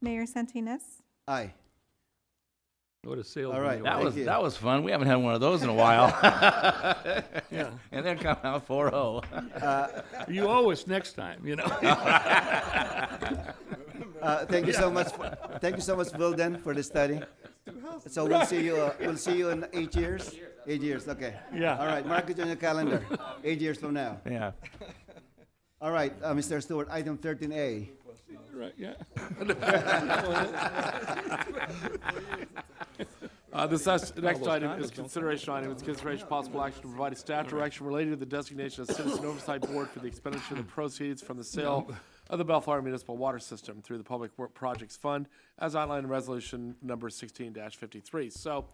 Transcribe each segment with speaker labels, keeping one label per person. Speaker 1: Mayor Santinez?
Speaker 2: Aye.
Speaker 3: What a sales.
Speaker 2: All right,
Speaker 3: meeting.
Speaker 2: well,
Speaker 4: That was,
Speaker 2: Thank you.
Speaker 4: that was fun. We haven't had one of those in a while. And they're coming out oh. 4-0.
Speaker 3: You always next time, you know?
Speaker 2: Uh, thank you so much. For, thank you so much, Wilden, for the study. So we'll see you. Uh, we'll see you in eight years. Eight years. Okay.
Speaker 3: Yeah.
Speaker 2: All right. Mark it on your calendar. Eight years from now.
Speaker 4: Yeah.
Speaker 2: All right, uh, Mr. Stewart. Item 13A.
Speaker 3: Right, yeah.
Speaker 5: Uh, This next- next item is consideration item. It's consideration possible action to provide a staff direction related to the designation of citizen oversight board for the expenditure of the proceeds from the sale of the Bellflower Municipal Water System through the Public Work Projects Fund as outlined in resolution number sixteen fifty-three. So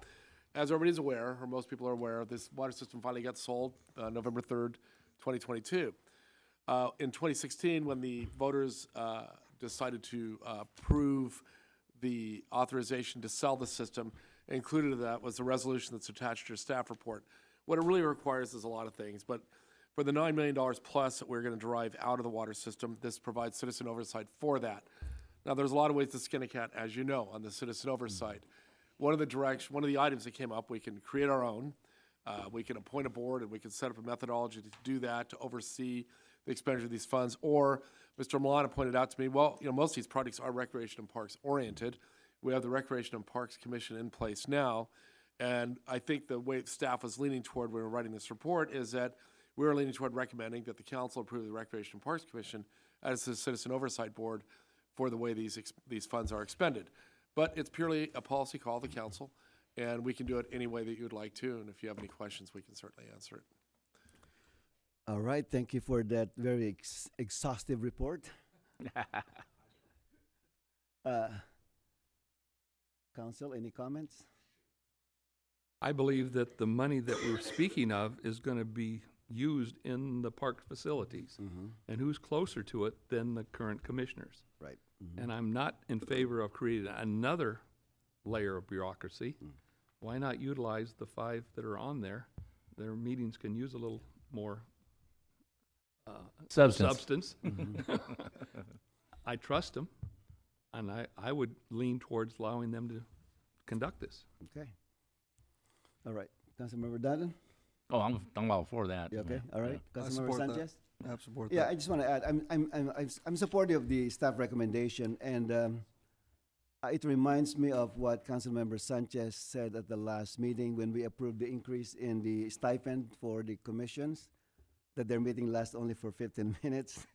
Speaker 5: as everybody's aware, or most people are aware, this water system finally got sold, uh, November third, twenty twenty-two. Uh, in 2016, when the voters uh, decided to uh, approve the authorization to sell the system, included in that was the resolution that's attached to your staff report. What it really requires is a lot of things, but for the $9 million plus that we're going to derive out of the water system, this provides citizen oversight for that. Now, there's a lot of ways to skin a cat, as you know, on the citizen oversight. One of the direction, one of the items that came up, we can create our own. Uh, we can appoint a board and we can set up a methodology to do that, to oversee the expenditure of these funds. Or Mr. Milano pointed out to me, well, you know, most of these projects are recreation and parks oriented. We have the Recreation and Parks Commission in place now. And I think the way staff was leaning toward when we were writing this report is that we were leaning toward recommending that the council approve the Recreation and Parks Commission as the Citizen Oversight Board for the way these, ex- these funds are expended. But it's purely a policy call of the council, and we can do it any way that you would like to, and if you have any questions, we can certainly answer it.
Speaker 2: All right. Thank you for that very ex- exhaustive report. uh, Council, any comments?
Speaker 3: I believe that the money that we're speaking of is gonna be used in the park facilities.
Speaker 2: Mm-hmm.
Speaker 3: And who's closer to it than the current commissioners?
Speaker 2: Right.
Speaker 3: And I'm not in favor of creating another layer of bureaucracy.
Speaker 2: Mm.
Speaker 3: Why not utilize the five that are on there? Their meetings can use a little more
Speaker 4: Substance.
Speaker 3: substance.
Speaker 2: Mm-hmm.
Speaker 3: I trust them, and I, I would lean towards allowing them to conduct this.
Speaker 2: Okay. All right. Councilmember Dutton,
Speaker 4: Oh, I'm, I'm all for that.
Speaker 2: you okay? All right. Councilmember
Speaker 6: support that.
Speaker 2: Sanchez?
Speaker 6: I support
Speaker 2: Yeah,
Speaker 6: that.
Speaker 2: I just want to add, I'm, I'm, I'm, I'm s- I'm supportive of the staff recommendation, and um, uh, it reminds me of what Councilmember Sanchez said at the last meeting when we approved the increase in the stipend for the commissions, that their meeting lasts only for 15 minutes.
Speaker 4: Yeah.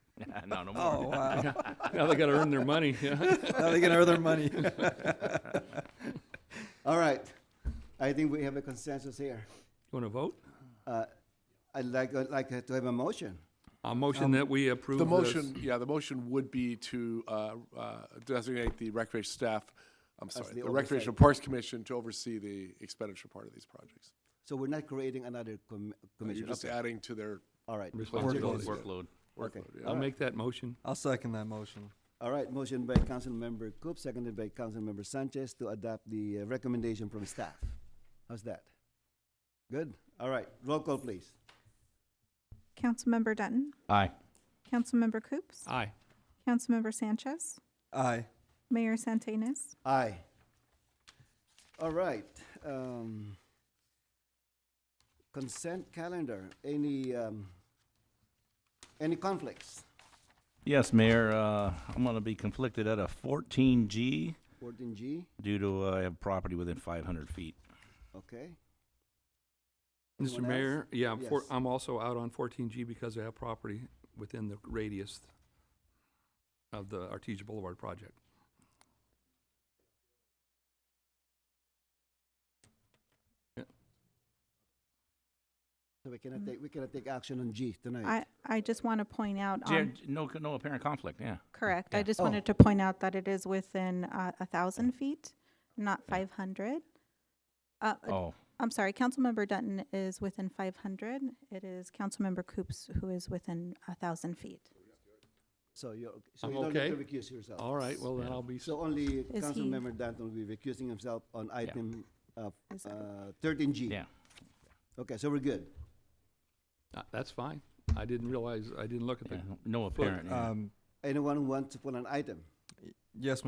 Speaker 4: No, no
Speaker 6: Oh,
Speaker 4: more.
Speaker 6: wow.
Speaker 3: Now they gotta earn their money, yeah.
Speaker 6: Now they can earn their money.
Speaker 2: All right, I think we have a consensus here.
Speaker 3: You wanna vote?
Speaker 2: Uh, I'd like, I'd like uh, to have a motion.
Speaker 3: A
Speaker 2: Um,
Speaker 3: motion that we approve
Speaker 5: The
Speaker 3: this.
Speaker 5: motion, yeah, the motion would be to uh, uh, designate the recreation staff, I'm sorry,
Speaker 2: the
Speaker 5: the Recreation
Speaker 2: oversight.
Speaker 5: Parks Commission to oversee the expenditure part of these projects.
Speaker 2: So we're not creating another com-
Speaker 6: Oh,
Speaker 5: You're
Speaker 2: commission.
Speaker 5: just
Speaker 2: Okay,
Speaker 5: adding to their
Speaker 2: all right.
Speaker 3: Responsibility.
Speaker 4: Workload.
Speaker 5: workload. yeah.
Speaker 3: I'll make that motion.
Speaker 6: I'll second that motion.
Speaker 2: All right, motion by Councilmember Coop, seconded by Councilmember Sanchez to adopt the uh, recommendation from staff. How's that? Good? All right, roll call, please.
Speaker 1: Councilmember Dutton?
Speaker 4: Aye.
Speaker 1: Councilmember Coops?
Speaker 3: Aye.
Speaker 1: Councilmember Sanchez?
Speaker 6: Aye.
Speaker 1: Mayor Santinez?
Speaker 2: Aye. All right, um, consent calendar, any, um, any conflicts?
Speaker 4: Yes, Mayor, uh, I'm gonna be conflicted at a fourteen G
Speaker 2: Fourteen G,
Speaker 4: due to, uh, I have property within five hundred feet.
Speaker 2: okay,
Speaker 3: Mr.
Speaker 2: Anyone else?
Speaker 3: Mayor, yeah, I'm for-
Speaker 2: Yes.
Speaker 3: I'm also out on fourteen G because I have property within the radius of the Artesia Boulevard project.
Speaker 2: so we cannot take, we cannot take action on G tonight.
Speaker 1: I, I just want to point out,
Speaker 4: Jer-
Speaker 1: on
Speaker 4: No, no apparent conflict, yeah.
Speaker 1: correct, I
Speaker 4: Yeah.
Speaker 1: just
Speaker 2: Oh.
Speaker 1: wanted to point out that it is within uh, a thousand feet, not five hundred. Uh,
Speaker 4: Oh,
Speaker 1: I'm sorry, Councilmember Dutton is within five hundred. It is Councilmember Coops who is within a thousand feet.
Speaker 2: So you're, so
Speaker 3: I'm
Speaker 2: you don't need to
Speaker 3: okay.
Speaker 2: recuse yourself.
Speaker 3: All right, well, then
Speaker 4: Yeah.
Speaker 3: I'll be,
Speaker 2: So only
Speaker 1: he-
Speaker 2: Councilmember Danton will be recusing himself on item
Speaker 1: Is it-
Speaker 2: Uh, thirteen G.
Speaker 4: yeah.
Speaker 2: Okay, so we're good.
Speaker 3: uh, that's fine. I didn't realize, I didn't look at the
Speaker 4: yeah, No apparent. yeah.
Speaker 6: Um,
Speaker 2: Anyone who wants to put an item?
Speaker 6: yes,